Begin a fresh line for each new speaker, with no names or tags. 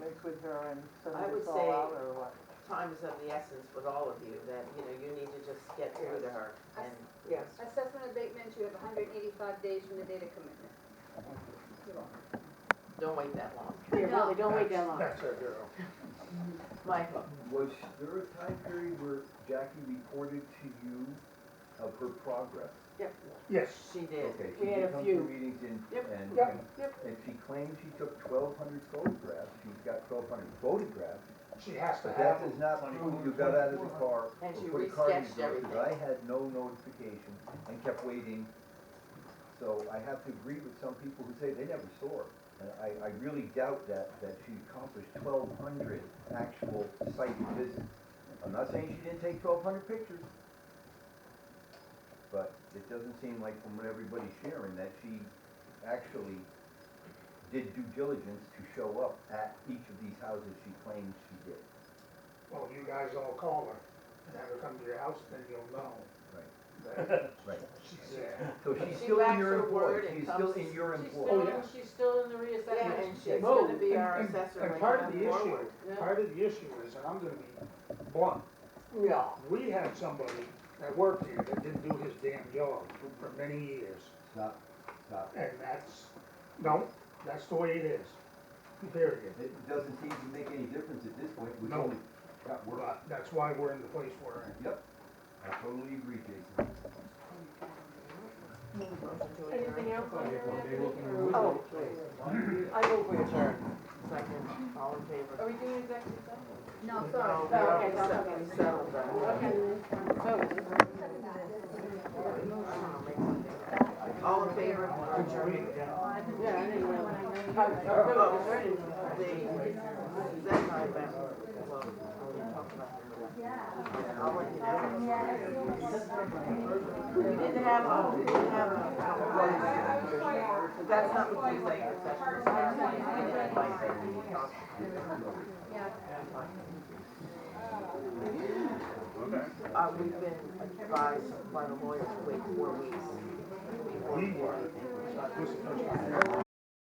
her and send
I
this
would
all
say-
out or what?
time is of the essence with all of you, that, you know, you need to just get through to her and.
Yes.
Assessment abatement, you have hundred and eighty-five days from the date of commitment. You're welcome.
Don't wait that long.
Yeah, really, don't wait that long.
That's our girl.
Michael,
Was there a time period where Jackie reported to you of her progress?
Yes,
she did.
Okay,
We
she
had a
did come
few.
to meetings and,
Yep,
and,
yep,
and-
yep.
and she claimed she took twelve hundred photographs, she's got twelve hundred photographs,
she has to
but
have.
that does not prove you got out of the car or
And she
put a car in
resketched
your door,
everything.
'cause I had no notification and kept waiting. So I have to agree with some people who say they never saw her. And I, I really doubt that, that she accomplished twelve hundred actual site visits. I'm not saying she didn't take twelve hundred pictures, but it doesn't seem like from what everybody's sharing that she actually did due diligence to show up at each of these houses she claims she did.
Well, you guys all call her, and have her come to your house, then you'll know that
Right.
she's there.
So she's
She
still in
backs
your
her
employ,
word and
she's still
comes-
in your
She's
employ.
still,
yeah.
she's still in the
Yeah,
reassessment.
and she's
No,
gonna be our
and- and-
assessor
And
going
part of the
forward.
issue, part of the issue is, and I'm gonna be blunt,
Yeah.
we had somebody that worked here that didn't do his damn job for many years.
Stop, stop.
And that's, no, that's the way it is, period.
It doesn't seem to make any difference at this point, we
No.
only got work.
But that's why we're in the place we're in.
Yep, I totally agree, Jason.
Motion to adjourn.
Anything else on your end?
Oh, I move we adjourn.
Second, all in favor?
Are we doing executive session?
No,
No,
sorry.
we
okay,
already
that's
settled-
Oh, okay.
settled that.
So,
I'll make something. All in favor of
Could you read
adjourn?
it down?
yeah, anyway. I- I- no, it's ready.
The, Zach and I met, well, we talked about it. Yeah, I'll let you know. We didn't have, a- we didn't have. a- But that's not what you say, that's what you say. Uh, we've been advised by the lawyers to wait four weeks.
We were, this is the first time.